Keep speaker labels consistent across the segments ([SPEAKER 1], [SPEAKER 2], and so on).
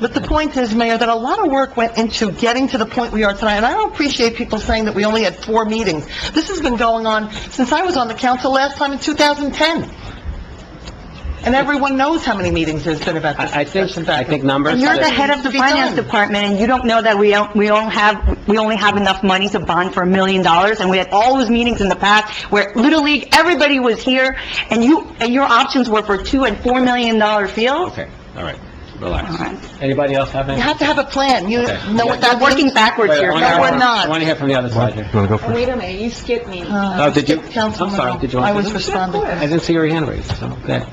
[SPEAKER 1] But the point is, Mayor, that a lot of work went into getting to the point we are tonight, and I don't appreciate people saying that we only had four meetings. This has been going on since I was on the council last time in 2010. And everyone knows how many meetings there's been about this
[SPEAKER 2] I I
[SPEAKER 1] discussion
[SPEAKER 2] think, I
[SPEAKER 1] back
[SPEAKER 2] think numbers...
[SPEAKER 1] And you're the
[SPEAKER 2] that-
[SPEAKER 1] head of the finance department.
[SPEAKER 3] department, and you don't know that we don't, we don't have, we only have enough money to bond for a million dollars, and we had all those meetings in the past where Little League, everybody was here, and you, and your options were for two and four million dollar fields?
[SPEAKER 2] Okay, all right,
[SPEAKER 3] All right.
[SPEAKER 2] relax. Anybody else have
[SPEAKER 1] You
[SPEAKER 2] any?
[SPEAKER 1] have to have a plan. You
[SPEAKER 2] Okay.
[SPEAKER 1] know what that
[SPEAKER 3] We're working
[SPEAKER 1] means?
[SPEAKER 3] backwards
[SPEAKER 2] Wait,
[SPEAKER 3] here.
[SPEAKER 2] I wanna
[SPEAKER 1] No,
[SPEAKER 2] hear
[SPEAKER 1] we're
[SPEAKER 2] from-
[SPEAKER 1] not. Uh,
[SPEAKER 2] I want to hear from the other side here.
[SPEAKER 4] You want to go first?
[SPEAKER 5] Wait a minute, you skipped me.
[SPEAKER 3] Uh,
[SPEAKER 2] Oh, did you-
[SPEAKER 1] Councilwoman,
[SPEAKER 2] I'm sorry, did you want
[SPEAKER 1] I
[SPEAKER 2] to-
[SPEAKER 1] was responding.
[SPEAKER 2] I didn't see your hand raised, so, okay.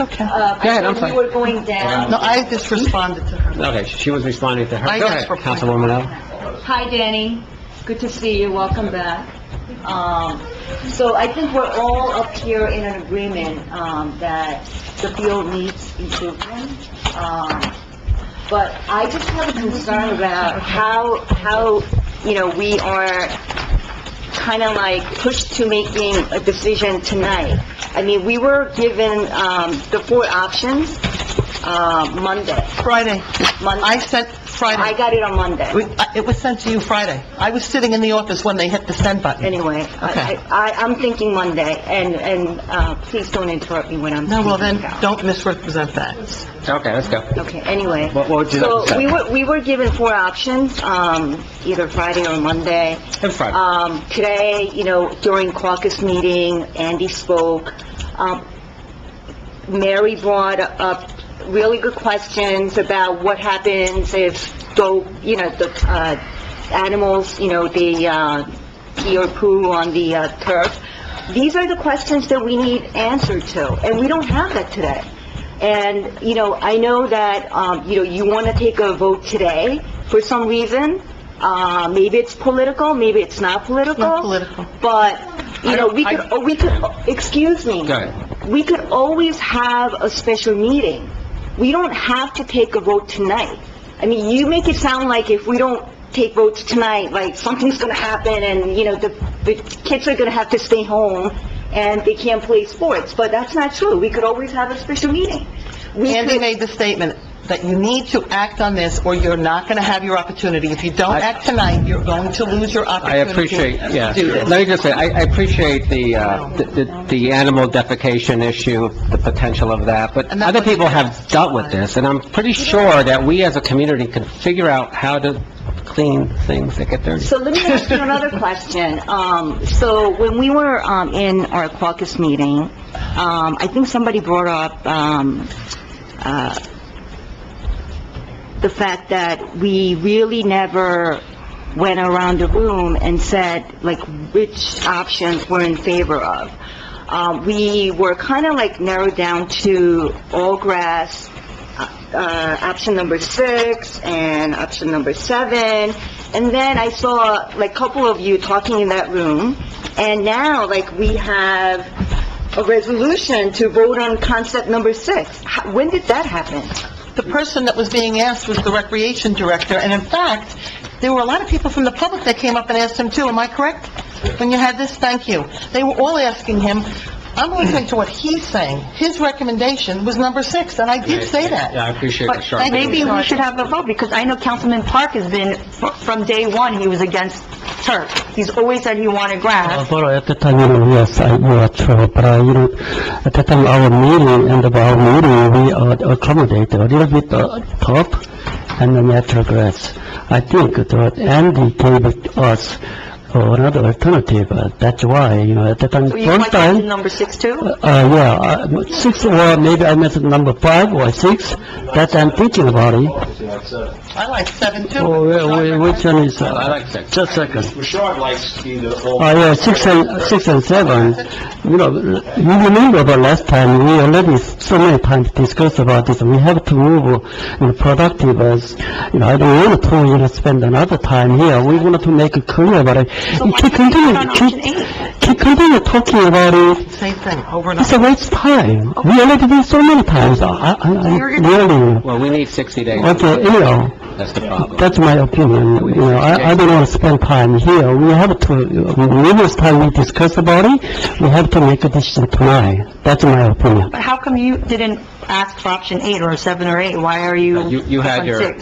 [SPEAKER 1] It's okay.
[SPEAKER 5] Uh,
[SPEAKER 2] Go ahead, I'm
[SPEAKER 5] when
[SPEAKER 2] sorry.
[SPEAKER 5] we were going down.
[SPEAKER 1] No, I just responded to her.
[SPEAKER 2] Okay, she was responding to her.
[SPEAKER 1] I
[SPEAKER 2] Go
[SPEAKER 1] just
[SPEAKER 2] ahead,
[SPEAKER 1] replied.
[SPEAKER 2] Councilwoman Allen.
[SPEAKER 5] Hi, Danny. Good to see you. Welcome back. Um, so I think we're all up here in an agreement, um, that the field needs improvement. Um, but I just have a concern about how, how, you know, we are kind of like pushed to making a decision tonight. I mean, we were given, um, the four options, uh, Monday.
[SPEAKER 1] Friday.
[SPEAKER 5] Monday.
[SPEAKER 1] I sent
[SPEAKER 5] I
[SPEAKER 1] Friday.
[SPEAKER 5] got it on Monday.
[SPEAKER 1] We- I- It was sent to you Friday. I was sitting in the office when they hit the send button.
[SPEAKER 5] Anyway, I,
[SPEAKER 1] Okay.
[SPEAKER 5] I, I'm thinking Monday, and, and, uh, please don't interrupt me when I'm
[SPEAKER 1] No,
[SPEAKER 5] speaking.
[SPEAKER 1] well then,
[SPEAKER 5] about-
[SPEAKER 1] don't misrepresent that.
[SPEAKER 2] Okay, let's go.
[SPEAKER 5] Okay, anyway.
[SPEAKER 2] What- what would you like to
[SPEAKER 5] So,
[SPEAKER 2] say?
[SPEAKER 5] we were, we were given four options, um, either Friday or Monday.
[SPEAKER 2] It's Friday.
[SPEAKER 1] Uh,
[SPEAKER 5] Um, today, you know, during caucus meeting, Andy spoke. Um, Mary brought up really good questions about what happens if, though, you know, the, uh, animals, you know, the, uh, pee or poo on the uh, turf. These are the questions that we need answered to, and we don't have that today. And, you know, I know that, um, you know, you want to take a vote today for some reason. Uh, maybe it's political, maybe it's not political.
[SPEAKER 1] Not political.
[SPEAKER 5] But, you know, we could, oh, we could, excuse me.
[SPEAKER 2] Go ahead.
[SPEAKER 5] We could always have a special meeting. We don't have to take a vote tonight. I mean, you make it sound like if we don't take votes tonight, like something's gonna happen and, you know, the, the kids are gonna have to stay home and they can't play sports, but that's not true. We could always have a special meeting. We
[SPEAKER 1] Andy
[SPEAKER 5] could-
[SPEAKER 1] made the statement that you need to act on this or you're not going to have your opportunity. If you don't
[SPEAKER 2] I-
[SPEAKER 1] act tonight, you're going to lose your
[SPEAKER 2] I
[SPEAKER 1] opportunity.
[SPEAKER 2] appreciate, yeah.
[SPEAKER 1] to do this.
[SPEAKER 2] Let me just say, I I appreciate the, uh, the- the the animal defecation issue, the potential of that, but
[SPEAKER 1] And that
[SPEAKER 2] other
[SPEAKER 1] wasn't
[SPEAKER 2] people have
[SPEAKER 1] addressed.
[SPEAKER 2] dealt with this, and I'm pretty sure that we as a community can figure out how to clean things that get dirty.
[SPEAKER 5] So let me ask you another question. Um, so when we were, um, in our caucus meeting, um, I think somebody brought up, um, uh, the fact that we really never went around the room and said, like, which options we're in favor of. Um, we were kind of like narrowed down to all grass, uh, option number six and option number seven. And then I saw like a couple of you talking in that room. And now like we have a resolution to vote on concept number six. How- When did that happen?
[SPEAKER 1] The person that was being asked was the recreation director, and in fact, there were a lot of people from the public that came up and asked him too, am I correct? When you had this, thank you. They were all asking him, I'm listening to what he's saying. His recommendation was number six, and I did say that.
[SPEAKER 2] Yeah, I appreciate the
[SPEAKER 1] But
[SPEAKER 2] sharp
[SPEAKER 1] thank you,
[SPEAKER 3] Maybe we
[SPEAKER 1] Sergeant.
[SPEAKER 3] should have a vote, because I know Councilman Park has been, fr- from day one, he was against turf. He's always said he wanted grass.
[SPEAKER 6] Although at the time, you know, yes, I, you are true, but, uh, you know, at the time, our meeting, and our meeting, we uh, accommodate a little bit uh, top and the natural grass. I think that Andy gave us uh, another alternative, uh, that's why, you know, at the time,
[SPEAKER 3] So you
[SPEAKER 6] first
[SPEAKER 3] want that
[SPEAKER 6] time,
[SPEAKER 3] number six too?
[SPEAKER 6] uh, yeah, uh, six, or maybe I missed number five or six, that I'm thinking about it.
[SPEAKER 1] I like seven too.
[SPEAKER 6] Oh, wh- wh- Which one is,
[SPEAKER 2] I
[SPEAKER 6] uh,
[SPEAKER 2] like six.
[SPEAKER 6] just a second.
[SPEAKER 7] Bouchard likes either all...
[SPEAKER 6] Oh, yeah, six and, six and seven. You know, you remember the last time, we already so many times discussed about this, we have to move, you know, productive as, you know, I don't want to, you know, spend another time here, we want to make it clear, but
[SPEAKER 3] So
[SPEAKER 6] I,
[SPEAKER 3] why don't we
[SPEAKER 6] keep continue,
[SPEAKER 3] vote on option
[SPEAKER 6] keep,
[SPEAKER 3] eight?
[SPEAKER 6] keep continue talking about it,
[SPEAKER 1] Same thing, over and
[SPEAKER 6] it's
[SPEAKER 1] over.
[SPEAKER 6] a waste of time. We already did so many times, I, I, I-
[SPEAKER 3] You're gonna-
[SPEAKER 6] really,
[SPEAKER 2] Well, we need 60 days.
[SPEAKER 6] okay, you know,
[SPEAKER 2] That's the problem.
[SPEAKER 6] That's my opinion, you know, I, I don't want to spend time here, we have to, numerous time we discussed about it, we have to make a decision tonight, that's my opinion.
[SPEAKER 5] But how come you didn't ask for option eight or seven or eight? Why are you...
[SPEAKER 2] Uh, You- you had
[SPEAKER 5] on
[SPEAKER 2] your-
[SPEAKER 5] six?